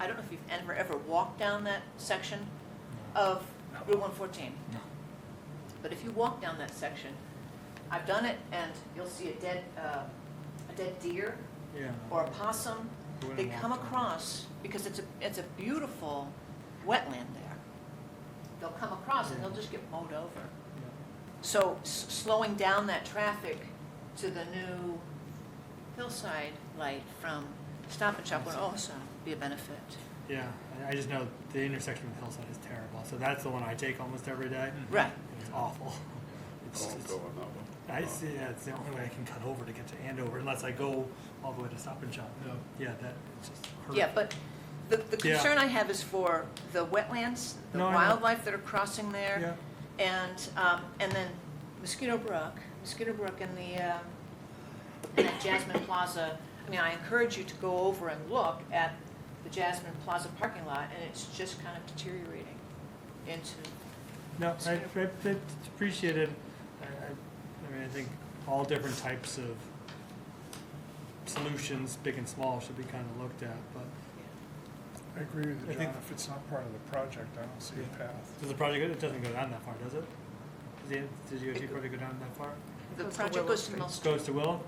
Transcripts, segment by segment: I don't know if you've ever, ever walked down that section of Route one fourteen. No. But if you walk down that section, I've done it, and you'll see a dead, uh, a dead deer Yeah. or a possum. I wouldn't They walk come down. across, because it's a, it's a beautiful wetland there. They'll come across and they'll just get mowed over. So s- slowing down that traffic to the new hillside light from Stop and Shop would also be a benefit. Yeah, I I just know the intersection with Hillside is terrible, so that's the one I take almost every day. Right. It's awful. It's, I'll it's- go on that one. I see, yeah, it's the only way I can cut over to get to Andover unless I go all the way to Stop and Shop. No. Yeah, that, it's just horrific. Yeah, but the, the Yeah. concern I have is for the wetlands, the No, I know. wildlife that are crossing Yeah, there. And, um, and then Mosquito Brook, Mosquito Brook and the, um, and that Jasmine Plaza. I mean, I encourage you to go over and look at the Jasmine Plaza parking lot, and it's just kind of deteriorating into no, I, I, I appreciate it. I, I, I mean, I think all different types of solutions, big and small, should be kind of looked at, but I agree with I you, think- John. If it's not part of the project, I don't see Yeah. a path. Does the project, it doesn't go down that far, does it? Does the, does the DOT project go down that far? The project goes to Mill It Street. Goes to Willow?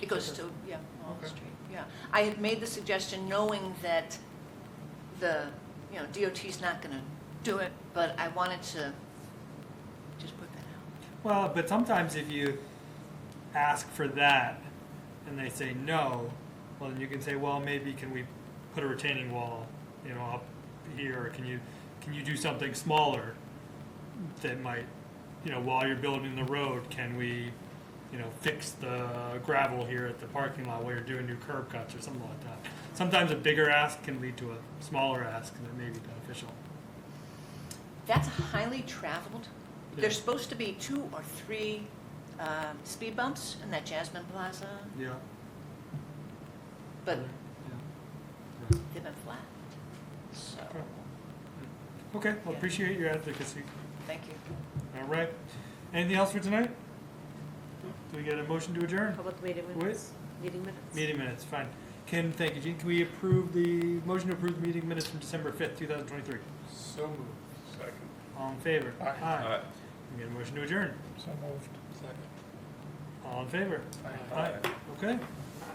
It goes to, yeah, Mill Okay. Street, yeah. I had made the suggestion knowing that the, you know, DOT's not going to do it, but I wanted to just put that out. Well, but sometimes if you ask for that and they say no, well, then you can say, well, maybe can we put a retaining wall, you know, up here, or can you, can you do something smaller that might, you know, while you're building the road, can we, you know, fix the gravel here at the parking lot while you're doing your curb cuts or something like that. Sometimes a bigger ask can lead to a smaller ask that may be beneficial. That's highly traveled. Yeah. There's supposed to be two or three um, speed bumps in that Jasmine Plaza, Yeah. but Yeah. they've been flat. So, Okay, Yeah. well, appreciate your advocacy. thank you. All right. Anything else for tonight? Do we get a motion to adjourn? Public meeting Wait. minutes? Meeting minutes? Meeting minutes, fine. Kim, thank you. Jean, can we approve the, motion to approve the meeting minutes from December fifth, two thousand twenty-three? So moved. Second. All in favor? Aye. All right. Can we get a motion to adjourn? So moved. All in favor? Aye. Okay.